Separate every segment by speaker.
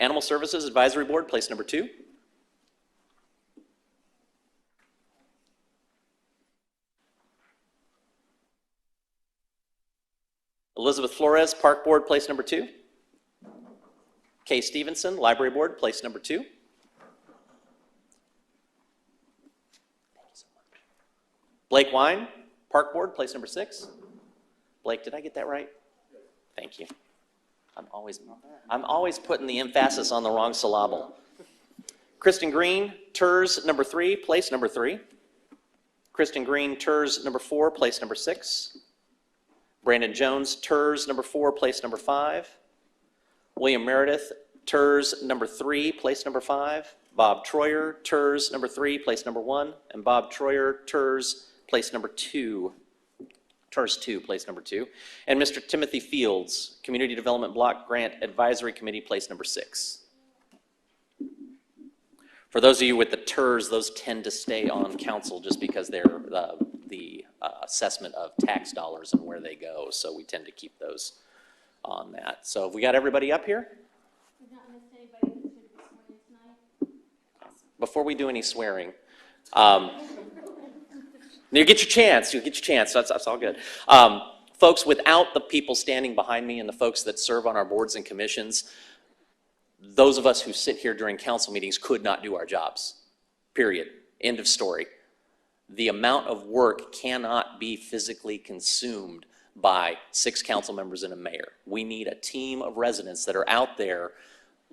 Speaker 1: Animal Services Advisory Board, place number two. Elizabeth Flores, Park Board, place number two. Kay Stevenson, Library Board, place number two. Blake Wine, Park Board, place number six. Blake, did I get that right? Thank you. I'm always, I'm always putting the emphasis on the wrong syllable. Kristen Green, TERS number three, place number three. Kristen Green, TERS number four, place number six. Brandon Jones, TERS number four, place number five. William Meredith, TERS number three, place number five. Bob Troyer, TERS number three, place number one. And Bob Troyer, TERS, place number two. TERS two, place number two. And Mr. Timothy Fields, Community Development Block Grant Advisory Committee, place number six. For those of you with the TERS, those tend to stay on council just because they're uh, the uh, assessment of tax dollars and where they go. So we tend to keep those on that. So have we got everybody up here?
Speaker 2: We've not missed anybody that should be sworn in tonight.
Speaker 1: Before we do any swearing, um, you get your chance, you get your chance, that's, that's all good. Um, folks, without the people standing behind me and the folks that serve on our boards and commissions, those of us who sit here during council meetings could not do our jobs, period, end of story. The amount of work cannot be physically consumed by six council members and a mayor. We need a team of residents that are out there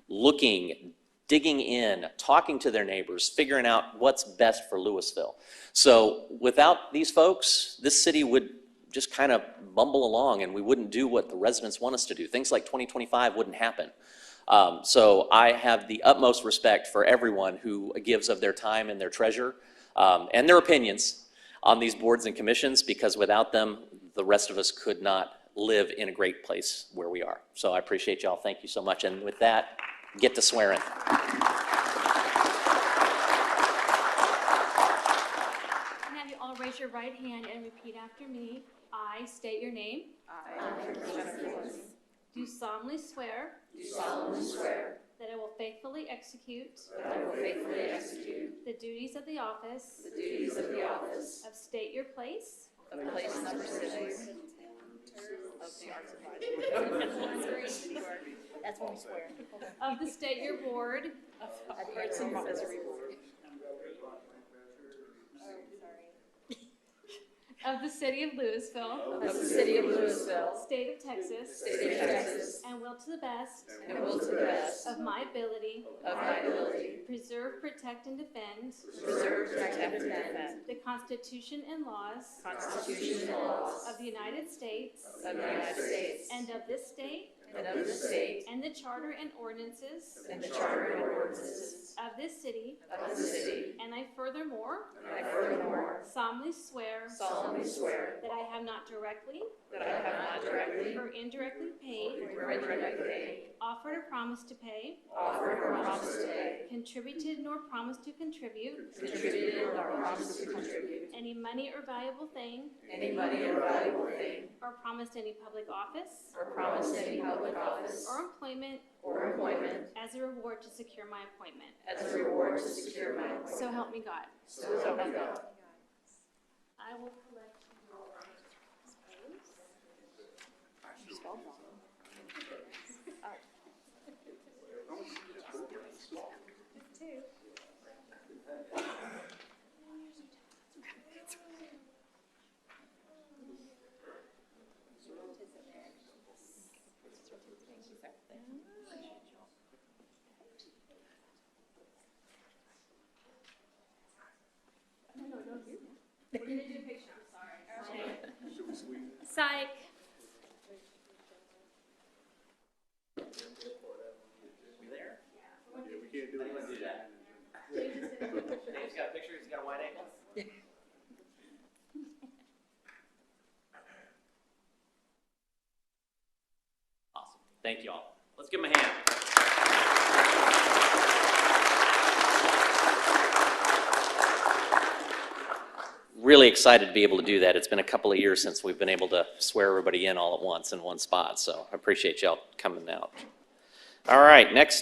Speaker 1: looking, digging in, talking to their neighbors, figuring out what's best for Louisville. So without these folks, this city would just kind of bumble along and we wouldn't do what the residents want us to do. Things like 2025 wouldn't happen. Um, So I have the utmost respect for everyone who gives of their time and their treasure um, and their opinions on these boards and commissions because without them, the rest of us could not live in a great place where we are. So I appreciate y'all. Thank you so much. And with that, get to swearing.
Speaker 2: And have you all raise your right hand and repeat after me. I state your name. I, Do solemnly swear. Do solemnly swear. That I will faithfully execute. That I will faithfully execute. The duties of the office. The duties of the office. Of state your place.
Speaker 3: That's when we swear.
Speaker 2: Of the state your ward.
Speaker 3: I've heard some advisory board.
Speaker 2: Of the city of Louisville.
Speaker 3: Of the city of Louisville,
Speaker 2: State of Texas.
Speaker 3: state of Texas,
Speaker 2: And will to the best.
Speaker 3: and will to the best
Speaker 2: Of my ability.
Speaker 3: of my ability
Speaker 2: Preserve, protect, and defend.
Speaker 3: preserve, protect, and defend
Speaker 2: The Constitution and laws.
Speaker 3: the Constitution and laws
Speaker 2: Of the United States.
Speaker 3: of the United States
Speaker 2: And of this state.
Speaker 3: and of the state
Speaker 2: And the charter and ordinances.
Speaker 3: and the charter and ordinances
Speaker 2: Of this city.
Speaker 3: of the city.
Speaker 2: And I furthermore
Speaker 3: And I furthermore
Speaker 2: solemnly swear.
Speaker 3: solemnly swear
Speaker 2: That I have not directly
Speaker 3: that I have not directly
Speaker 2: or indirectly paid.
Speaker 3: or indirectly paid,
Speaker 2: Offered or promised to pay.
Speaker 3: offered or promised to pay,
Speaker 2: Contributed nor promised to contribute.
Speaker 3: contributed or promised to contribute
Speaker 2: Any money or valuable thing.
Speaker 3: any money or valuable thing
Speaker 2: Or promised any public office.
Speaker 3: or promised any public office
Speaker 2: Or employment
Speaker 3: or appointment
Speaker 2: as a reward to secure my appointment.
Speaker 3: as a reward to secure my appointment.
Speaker 2: So help me God.
Speaker 3: So help me God.
Speaker 2: I will collect your votes. Psych.
Speaker 1: Dave's got a picture, he's got a wide angle. Awesome, thank you all. Let's give him a hand. Really excited to be able to do that. It's been a couple of years since we've been able to swear everybody in all at once in one spot, so I appreciate y'all coming out. All right, next